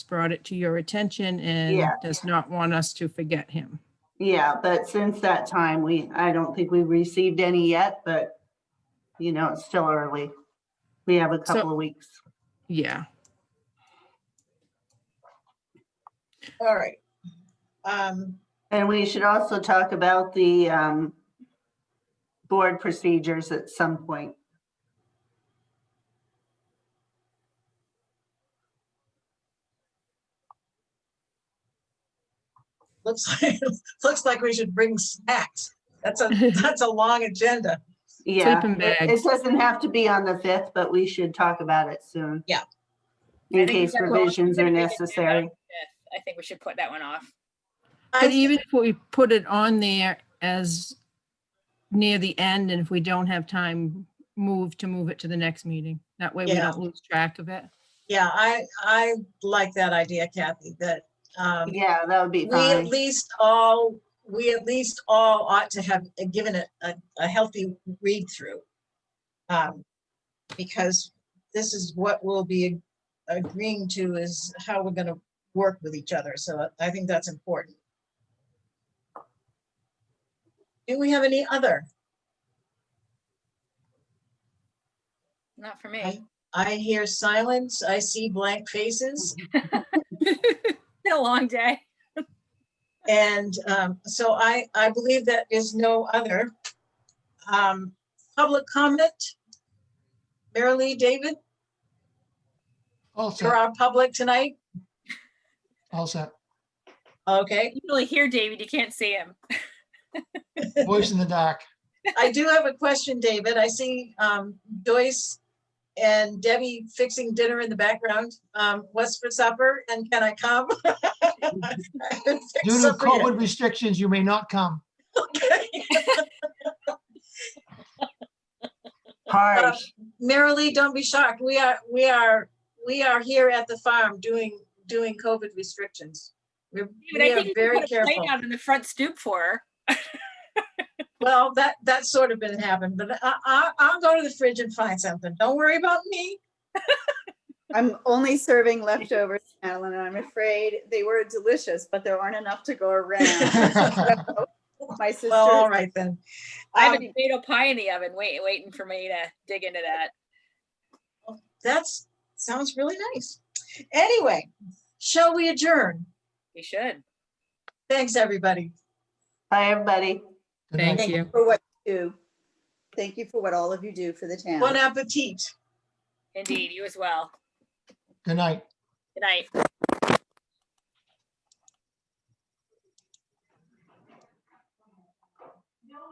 brought it to your attention and Yeah. does not want us to forget him. Yeah, but since that time, we, I don't think we've received any yet, but you know, it's still early. We have a So- couple of weeks. Yeah, All right. Um, And we should also talk about the um board procedures at some point. looks like, looks like we should bring snacks. That's a, that's a long agenda. Yeah. Sleeping it- bags. It doesn't have to be on the fifth, but we should talk about it soon. Yeah. In I think case that- revisions I are think we can do necessary. that. I think we should put that one off. I but even if we put it on there as near the end and if we don't have time, move to move it to the next meeting. That way we Yeah. don't lose track of it. Yeah, I, I like that idea, Kathy, that, um, Yeah, that would be we at fine. least all, we at least all ought to have uh, given it a, a healthy read through. Um, because this is what we'll be agreeing to is how we're gonna work with each other, so I think that's important. Do we have any other? Not for me. I hear silence, I see blank faces, Been a long day. and um, so I, I believe that is no other. Um, Public comment? Mary Lee, David, All for set, our public tonight? all set. Okay, You can only hear David, you can't see him. Voice in the dark. I do have a question, David. I see um, Joyce and Debbie fixing dinner in the background. Um, What's for supper and can I come? I haven't fixed Due to supper yet. COVID restrictions, you may not come. Harsh. Merrily, don't be shocked. We are, we are, we are here at the farm doing, doing COVID restrictions. We're David, we I are think you very could put a plate careful. out on the front stoop for her. Well, that, that's sort of been happened, but I, I, I'll go to the fridge and find something. Don't worry about me. I'm only serving leftovers, Madeline, and I'm afraid they were delicious, but there aren't enough to go around. My sister, Well, all right then. I have a Um, tomato pie in the oven, wait, waiting for me to dig into that. That's, sounds really nice. Anyway, shall we adjourn? We should. Thanks, everybody. Bye, everybody. Good night. Thank you. for what you do. Thank you for what all of you do for the town. Bon appetit. Indeed, you as well. Good night. Good night.